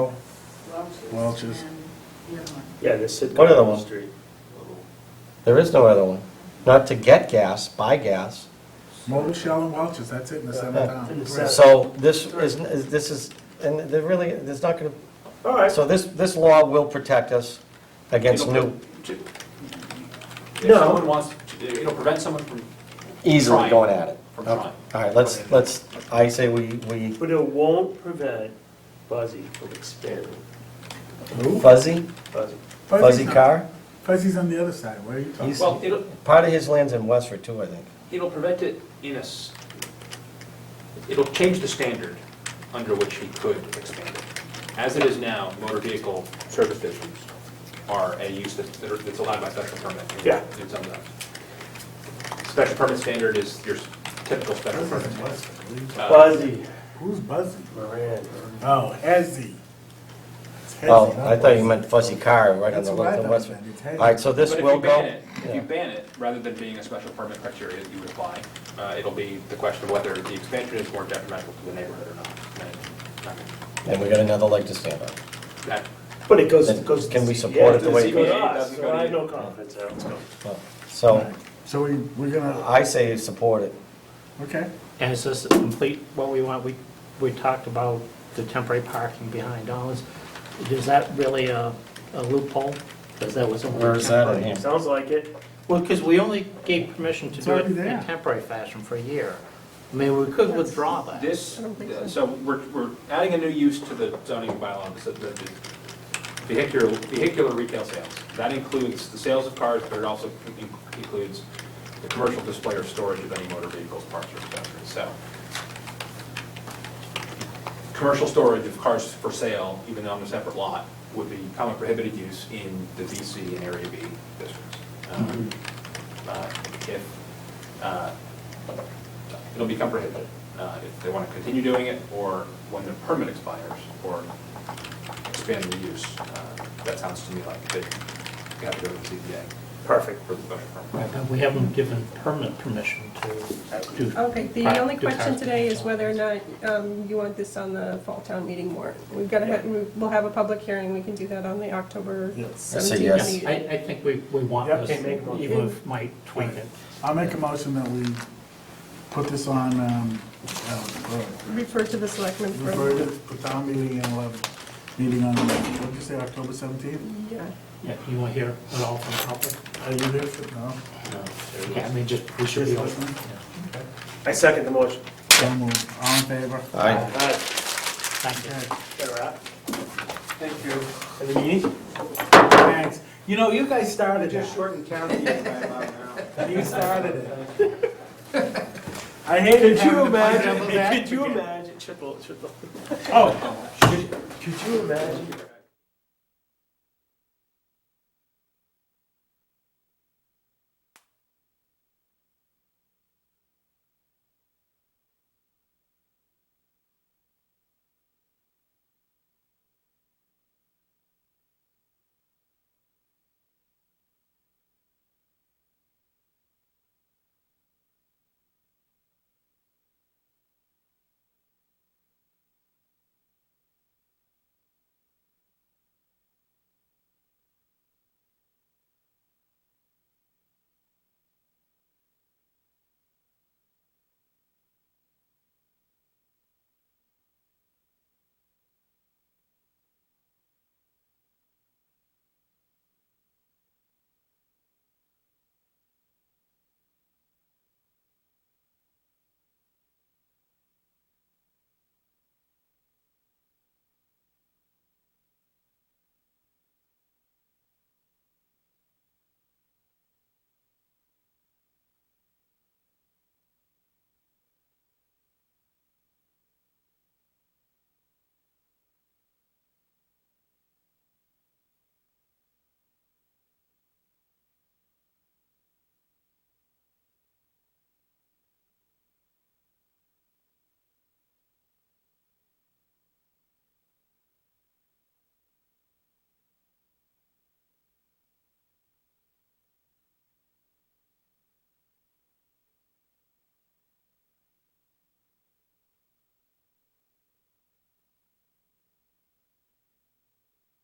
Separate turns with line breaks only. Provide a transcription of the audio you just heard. Welch's.
Welch's.
And the other one.
Yeah, they sit
What
down
other
on the
one?
street.
There is no other one. Not to get gas, buy gas.
Mold Shell and Welch's, that's it in the center of town.
In the center.
So this is, is- this is, and there really, there's not going
All
to,
right.
so this, this law will protect us against
It'll
new,
pre- to- If
No.
someone wants, to- it'll prevent someone from,
easily
Trying.
going at it.
from
Okay.
trying.
All right, let's, let's, I say we, we
But it won't prevent Buzzy from expanding,
Who?
fuzzy,
Buzzy.
fuzzy
Fuzzy's on-
car.
Fuzzy's on the other side, where are you talking?
He's-
Well, it'll,
Part of his land's in Westford too, I think.
it'll prevent it in a, s- it'll change the standard under which he could expand it. As it is now, motor vehicle service stations are a use that, that are- that's allowed by special permit. in-
Yeah.
In some zones. Special permit standard is your s- typical special
Fuzzy's
permit.
in Westford.
Uh,
Buzzy
Who's Buzzy?
Moran.
Oh, Hezzy. It's Hezzy,
Oh,
not
I thought you
Buzzy.
meant fuzzy car right on
That's
the
what I
left of
thought
Westford.
you meant, it's
All
heavy.
right, so this will
But if you ban
go.
it, if you
Yeah.
ban it, rather than being a special permit criteria that you would apply, uh, it'll be the question of whether the expansion is more detrimental to the neighborhood or not. And, I mean,
And we got another leg to stand on.
that-
But it goes,
Then
goes.
can we support
yeah,
it the way-
doesn't go to
Yeah, it
us,
doesn't
so
go to
I have
you.
no confidence how it's going.
Well,
All
So
right. So we, we're gonna,
I say support it.
okay,
And is this complete what we want? We, we talked about the temporary parking behind Dollars. Is that really a a loophole? Because that was
Where
only
is that in
temporary.
here?
Sounds like it.
Well, because we only gave permission to
It's
do it
already
in
there.
a temporary fashion for a year. I mean, we could withdraw that.
This, so we're, we're adding a new use to the zoning bylaw, so the the vehicular, vehicular retail sales. That includes the sales of cars, but it also in- includes the commercial display or storage of any motor vehicles, parts, or accessories, so. Commercial storage of cars for sale, even on a separate lot, would be common prohibited use in the VC and Area B districts. Um, uh, If, uh, it'll become prohibited uh, if they want to continue doing it, or when the permit expires, or expand the use. Uh, That sounds to me like they you have to go to the ZBA
Perfect.
for the special permit.
Right, but We haven't given permanent permission to do.
Okay, the
Right,
only
do
question
cars.
today is whether or not um, you want this on the fall town meeting warrant. We've got
Yeah.
to, we'll have a public hearing, we can do that on the October
Yes. I
say
17th
yes.
meeting.
I, I think we, we want
Yep, okay,
this,
make one.
even if Mike tweak it.
I'll make a motion that we put this on, um, uh,
Refer to the selectmen for,
refer to the town meeting and eleven, meeting on, what did you say, October seventeenth?
yeah.
Yeah, you want to hear it all from Harper?
Are you there for, no?
Yeah, I mean, just, we should be.
Just
all-
listening?
I second the motion.
So moved. all in favor?
Aye.
All right,
Thank you.
Okay,
better wrap.
Thank you.
And the meeting?
thanks,
You know, you guys started it. Shortened county years by about now.
you started it. I hated
Could you
having to punch
imagine,
double back
could you
again.
imagine, triple, triple.
Oh,
Could you imagine